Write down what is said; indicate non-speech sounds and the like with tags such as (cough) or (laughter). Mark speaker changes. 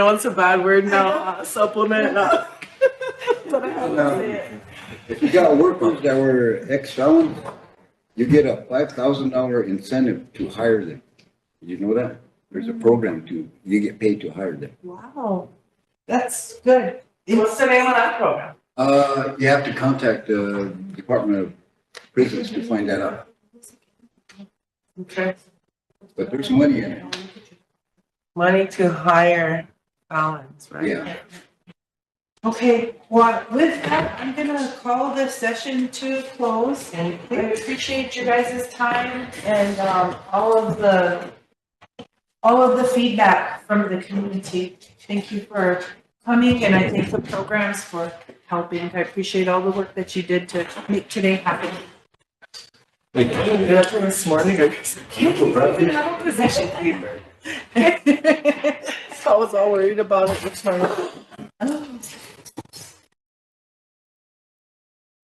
Speaker 1: know it's a bad word now, supplement. no. But I have to say it.
Speaker 2: If you got workers that were ex-felons, you get a five thousand dollar incentive to hire them. You know that? There's a program to, you get paid to hire them.
Speaker 1: Wow, that's good. What's the name of that program?
Speaker 2: Uh, you have to contact the Department of Prisons to find that out,
Speaker 1: Okay.
Speaker 2: but there's money in it,
Speaker 1: Money to hire balance, right?
Speaker 2: yeah.
Speaker 1: Okay, well, with that, I'm gonna call this session to a close. I appreciate you guys' time and, um, all of the, all of the feedback from the community. Thank you for coming and I thank the programs for helping. I appreciate all the work that you did to make today happen.
Speaker 3: Thank you.
Speaker 1: That's from this morning, I guess. Can't you open (laughs) up a possession paper? So I was all worried about it this morning.